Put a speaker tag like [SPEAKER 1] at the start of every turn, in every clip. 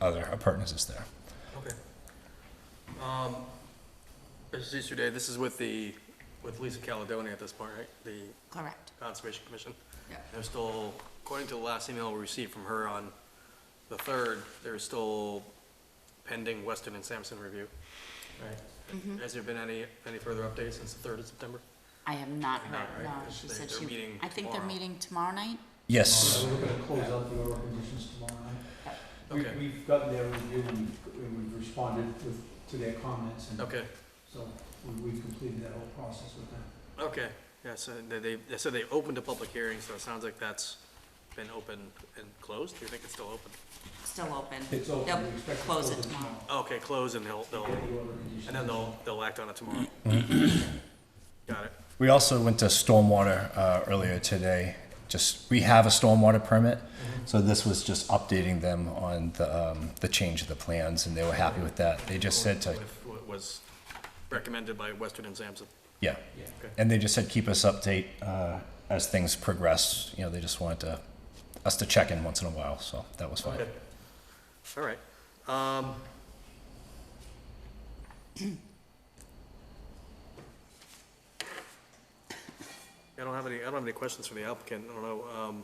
[SPEAKER 1] other appurtenances there.
[SPEAKER 2] Okay. Um, Mr. Easterday, this is with the, with Lisa Caledonia at this point, right? The
[SPEAKER 3] Correct.
[SPEAKER 2] Conservation Commission?
[SPEAKER 3] Yeah.
[SPEAKER 2] There's still, according to the last email we received from her on the third, there's still pending Weston and Sampson review. Right? Has there been any, any further updates since the third of September?
[SPEAKER 3] I have not
[SPEAKER 2] Not right,
[SPEAKER 3] heard, no,
[SPEAKER 2] because
[SPEAKER 3] she
[SPEAKER 2] they-
[SPEAKER 3] said
[SPEAKER 2] they're
[SPEAKER 3] she,
[SPEAKER 2] meeting
[SPEAKER 3] I think they're
[SPEAKER 2] tomorrow.
[SPEAKER 3] meeting tomorrow night?
[SPEAKER 1] Yes,
[SPEAKER 4] We're gonna close out the oral conditions tomorrow night. We-
[SPEAKER 2] Okay.
[SPEAKER 4] We've gotten their review and we've- and we've responded with, to their comments and
[SPEAKER 2] Okay,
[SPEAKER 4] so we- we've completed that whole process with them.
[SPEAKER 2] okay, yeah, so they, they, they said they opened a public hearing, so it sounds like that's been open and closed? Do you think it's still open?
[SPEAKER 3] Still open.
[SPEAKER 4] It's open, we
[SPEAKER 3] They'll
[SPEAKER 4] expect to
[SPEAKER 3] close
[SPEAKER 4] close
[SPEAKER 3] it
[SPEAKER 4] it
[SPEAKER 3] tomorrow.
[SPEAKER 4] tomorrow.
[SPEAKER 2] Okay, closed and they'll, they'll,
[SPEAKER 4] Get the oral conditions.
[SPEAKER 2] and then they'll, they'll act on it tomorrow. Got it.
[SPEAKER 1] we also went to stormwater uh, earlier today. Just, we have a stormwater permit, so this was just updating them on the, um, the change of the plans, and they were happy with that. They just said to,
[SPEAKER 2] With What was recommended by Western and Sampson.
[SPEAKER 1] yeah.
[SPEAKER 4] Yeah.
[SPEAKER 1] And they just said, keep us update uh, as things progress. You know, they just wanted to, us to check in once in a while, so that was fine.
[SPEAKER 2] Okay. All right. Um, I don't have any, I don't have any questions for the applicant. I don't know, um,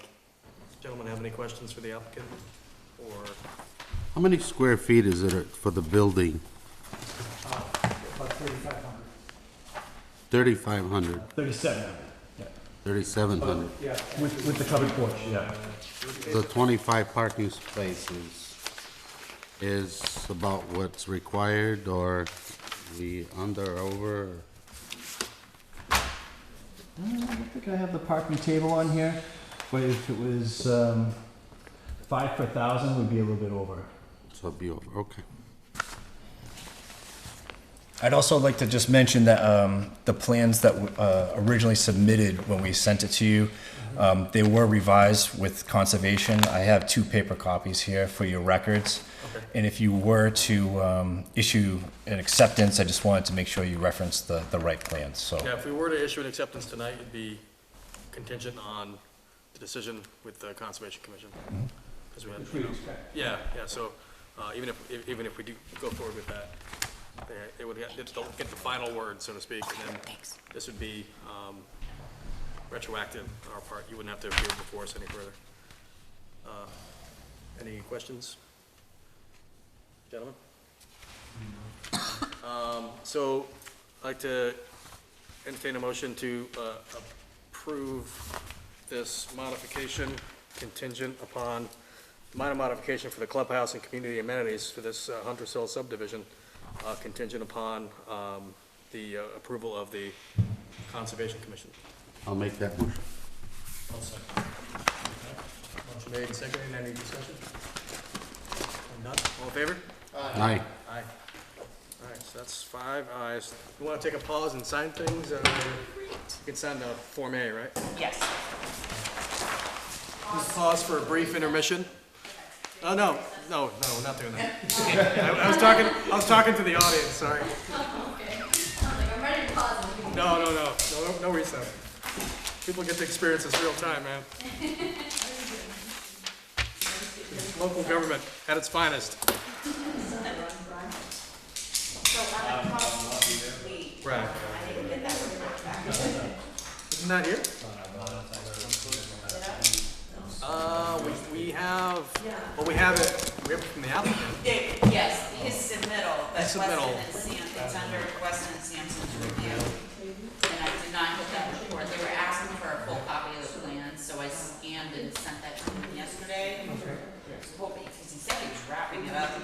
[SPEAKER 2] gentlemen have any questions for the applicant? Or,
[SPEAKER 5] How many square feet is it for the building?
[SPEAKER 4] About thirty-five hundred.
[SPEAKER 5] 3,500,
[SPEAKER 6] Thirty-seven,
[SPEAKER 5] 3,700.
[SPEAKER 4] Yeah,
[SPEAKER 6] with, with the covered porch, yeah.
[SPEAKER 5] The 25 parking spaces is about what's required, or the under, or over?
[SPEAKER 6] I don't think I have the parking table on here, but if it was, um, five per thousand, would be a little bit over.
[SPEAKER 5] So it'd be over, okay.
[SPEAKER 1] I'd also like to just mention that um, the plans that uh, originally submitted when we sent it to you, um, they were revised with conservation. I have two paper copies here for your records. And if you were to um, issue an acceptance, I just wanted to make sure you reference the, the right plans, so.
[SPEAKER 2] yeah, if we were to issue an acceptance tonight, it'd be contingent on the decision with the Conservation Commission. 'Cause we had-
[SPEAKER 4] which we expect.
[SPEAKER 2] Yeah, yeah, so, uh, even if, if- even if we do go forward with that, they- they would get, they'll get the final word, so to speak, and then
[SPEAKER 3] Thanks.
[SPEAKER 2] this would be, um, retroactive on our part, you wouldn't have to appear before us any further. Uh, Any questions? Gentlemen? Um, so, I'd like to entertain a motion to, uh, approve this modification contingent upon minor modification for the clubhouse and community amenities for this uh, Hunter's Hill subdivision, uh, contingent upon, um, the uh, approval of the Conservation Commission.
[SPEAKER 5] I'll make that motion.
[SPEAKER 2] Motion made, and seconded, any discussion? None, all in favor?
[SPEAKER 5] Aye.
[SPEAKER 2] Aye. All right, so that's five ayes. You wanna take a pause and sign things, uh, you can sign the Form A, right?
[SPEAKER 3] Yes.
[SPEAKER 2] Just pause for a brief intermission. Oh, no, no, no, we're not doing that. I I was talking, I was talking to the audience, sorry. No, no, no, no, no- no recess. People get to experience this real time, man. Local government at its finest.
[SPEAKER 4] Um,
[SPEAKER 2] Right. Isn't that here? Uh, we, we have, well, we have it, we have it from the applicant.
[SPEAKER 3] Yes, his submittal, but
[SPEAKER 2] His
[SPEAKER 3] Weston
[SPEAKER 2] submittal.
[SPEAKER 3] and Sampson, it's under Weston and Sampson's review. And I did not get that report. They were asking for a full copy of the plan, so I scanned and sent that to him yesterday. I was hoping, because he said he was wrapping it up. I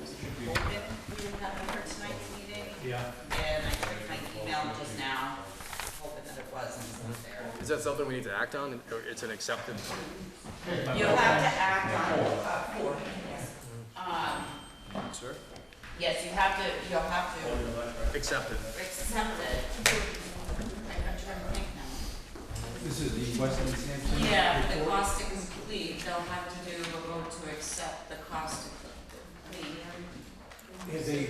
[SPEAKER 3] was hoping we would have it for tonight's meeting.
[SPEAKER 4] Yeah.
[SPEAKER 3] And I checked my email just now, hoping that it wasn't there.
[SPEAKER 2] Is that something we need to act on, or it's an acceptance?
[SPEAKER 3] You'll have to act on, uh, four, yes. Um,
[SPEAKER 2] Sure.
[SPEAKER 3] yes, you have to, you'll have to
[SPEAKER 2] Accepted.
[SPEAKER 3] accept it. I'm trying to think now.
[SPEAKER 4] This is the Weston Sampson.
[SPEAKER 3] Yeah, for the
[SPEAKER 4] report.
[SPEAKER 3] cost to complete, they'll have to do a vote to accept the cost to complete.
[SPEAKER 4] Have they
[SPEAKER 3] um,